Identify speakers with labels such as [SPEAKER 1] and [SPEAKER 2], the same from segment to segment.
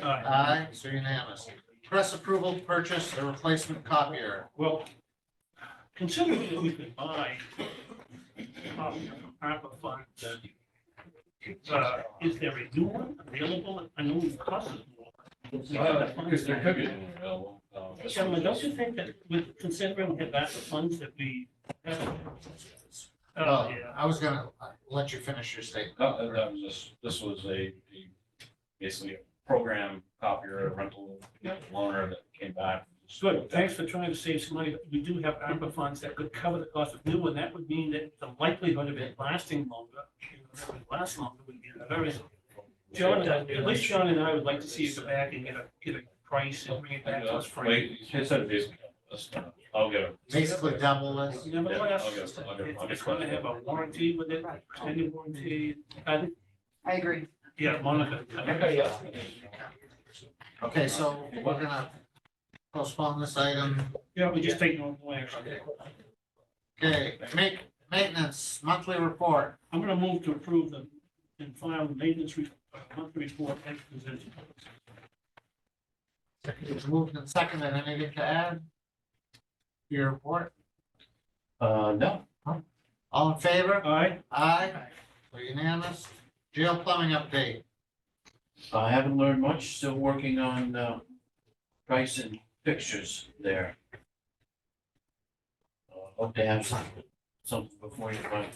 [SPEAKER 1] Uh,
[SPEAKER 2] Aye, so unanimous. Press approval to purchase a replacement copier.
[SPEAKER 1] Well, considering that we could buy uh, a copy of ARPA funds, uh, is there a new one available? I know it costs us more. We have the funds
[SPEAKER 3] Because there could be. um,
[SPEAKER 1] now. Gentlemen, don't you think that with considering the amount of funds that we have? Oh,
[SPEAKER 2] Oh,
[SPEAKER 1] yeah.
[SPEAKER 2] I was gonna uh, let you finish your statement.
[SPEAKER 3] No, that uh, that was just, this was a, a- basically a program copier a rental loaner that came back.
[SPEAKER 1] Good, thanks for trying to save some money. We do have ARPA funds that could cover the cost of new, and that would mean that the likelihood of it lasting longer, if it would last longer would be very. John, at least John and I would like to see you go back and get a, get a price and bring it back to us for.
[SPEAKER 3] uh, Wait, he said basically, that's- I'll get a.
[SPEAKER 2] Basically double this.
[SPEAKER 1] Nevertheless,
[SPEAKER 3] Yeah, I'll get- I'll get- I'll get-
[SPEAKER 1] it's gonna have a warranty with it, extended warranty, I think,
[SPEAKER 4] I agree.
[SPEAKER 1] yeah, Monica.
[SPEAKER 2] Okay, so we're gonna postpone this item.
[SPEAKER 1] Yeah, we just take normal action.
[SPEAKER 2] Okay, make, maintenance, monthly report.
[SPEAKER 1] I'm gonna move to approve the, and file the maintenance re- uh, monthly report as presented.
[SPEAKER 2] It's moved and seconded. Anything to add? to Your report?
[SPEAKER 3] Uh, no.
[SPEAKER 2] All in favor?
[SPEAKER 1] All right,
[SPEAKER 2] Aye, so unanimous. Jail plumbing update.
[SPEAKER 3] I haven't learned much, still working on, uh, price and fixtures there. Uh, Hope to have some, something before you, but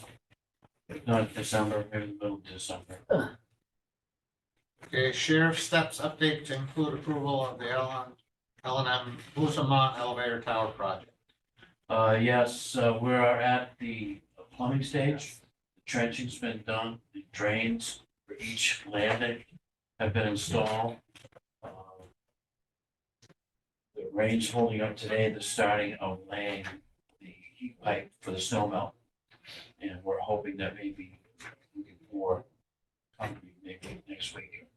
[SPEAKER 3] if not December, maybe the middle of December.
[SPEAKER 2] Okay, sheriff steps update to include approval of the L and M Busamont elevator tower project.
[SPEAKER 3] Uh, yes, uh, we are at the plumbing stage. The Trenching's been done, the drains for each landing have been installed. Uh, The rain's holding up today, the starting of laying the heat pipe for the snow melt. And we're hoping that maybe we can pour concrete maybe next week.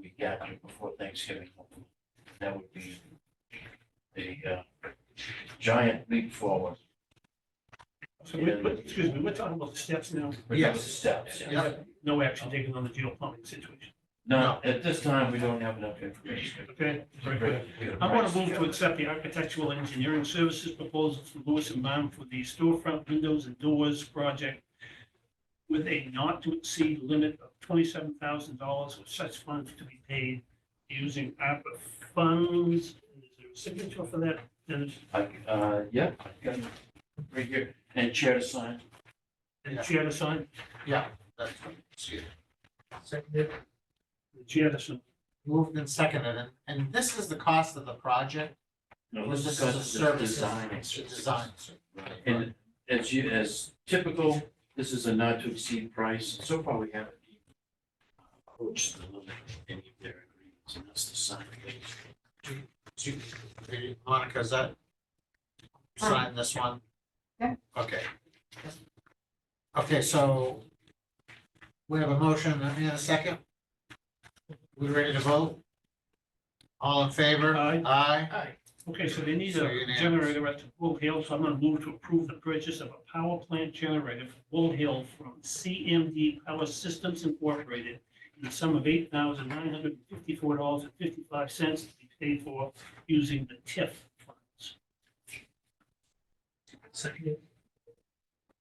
[SPEAKER 3] We got it before Thanksgiving. That would be the, uh, giant leap forward.
[SPEAKER 1] So we, we- excuse me, we're talking about the steps now,
[SPEAKER 3] We're doing
[SPEAKER 2] Yes.
[SPEAKER 3] Steps. yes.
[SPEAKER 2] Yep.
[SPEAKER 1] no action taken on the geoplumbing situation,
[SPEAKER 3] No, at this time, we don't have enough information.
[SPEAKER 1] okay? Very good. I want to move to accept the architectural and engineering services proposal from Lewis and Baum for the storefront windows and doors project with a not to exceed limit of twenty-seven thousand dollars with such funds to be paid using ARPA funds. Is there a signature for that? Dennis?
[SPEAKER 3] I, uh, yeah, I got it right here, and chair to sign.
[SPEAKER 1] And the chair to sign,
[SPEAKER 2] Yeah, that's, excuse me. Seconded,
[SPEAKER 1] the chair to sign.
[SPEAKER 2] moved and seconded, and, and this is the cost of the project?
[SPEAKER 3] No,
[SPEAKER 2] or
[SPEAKER 3] this is
[SPEAKER 2] a
[SPEAKER 3] just the
[SPEAKER 2] service?
[SPEAKER 3] design.
[SPEAKER 2] It's a Design.
[SPEAKER 3] And as you, as typical, this is a not to exceed price, so far we haven't even approached the limit of any of their agreements, and that's the sign.
[SPEAKER 2] Do- Monica, is that? Sign this one?
[SPEAKER 4] Yeah.
[SPEAKER 2] Okay. Okay, so we have a motion and a second. We ready to vote? All in favor?
[SPEAKER 1] Aye.
[SPEAKER 2] Aye.
[SPEAKER 1] Okay, so they need
[SPEAKER 2] So
[SPEAKER 1] a
[SPEAKER 2] unanimous.
[SPEAKER 1] generator at Bull Hill, so I'm gonna move to approve the purchase of a power plant generator for Bull Hill from CMD Power Systems Incorporated in the sum of eight thousand nine hundred and fifty-four dollars and fifty-five cents to be paid for using the TIF funds.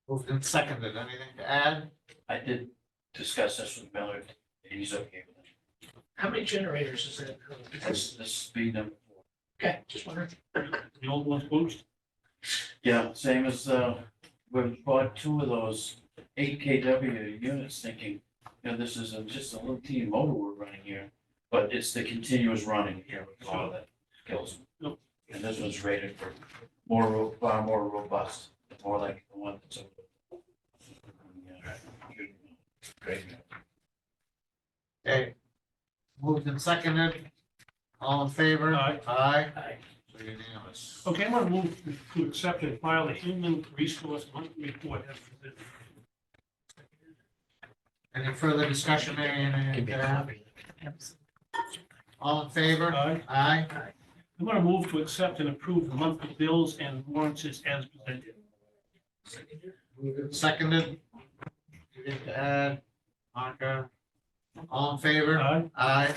[SPEAKER 2] Moved and seconded. Anything to add?
[SPEAKER 3] I did discuss this with Mallard, and he's okay with it.
[SPEAKER 5] How many generators is that?
[SPEAKER 3] This, this being number four.
[SPEAKER 5] Okay, just wondering.
[SPEAKER 1] The old ones moved,
[SPEAKER 3] Yeah, same as, uh, we bought two of those eight KW units thinking, you know, this is a- just a little teeny motor we're running here. But it's the continuous running here with all that kills them. And this one's rated for more, ro- far more robust, more like the one that's. over- Yeah, Great.
[SPEAKER 2] Okay. Moved and seconded. All in favor?
[SPEAKER 1] Aye.
[SPEAKER 2] Aye.
[SPEAKER 5] Aye.
[SPEAKER 2] So unanimous.
[SPEAKER 1] okay, I'm gonna move to accept and file the human resource monthly report as presented.
[SPEAKER 2] Any further discussion, Mary Ann, anything to add? All in favor?
[SPEAKER 1] Aye.
[SPEAKER 2] Aye.
[SPEAKER 1] I'm gonna move to accept and approve the monthly bills and warrants as presented.
[SPEAKER 2] Moved and Seconded. Anything to add? Monica? All in favor?
[SPEAKER 1] Aye.
[SPEAKER 2] Aye.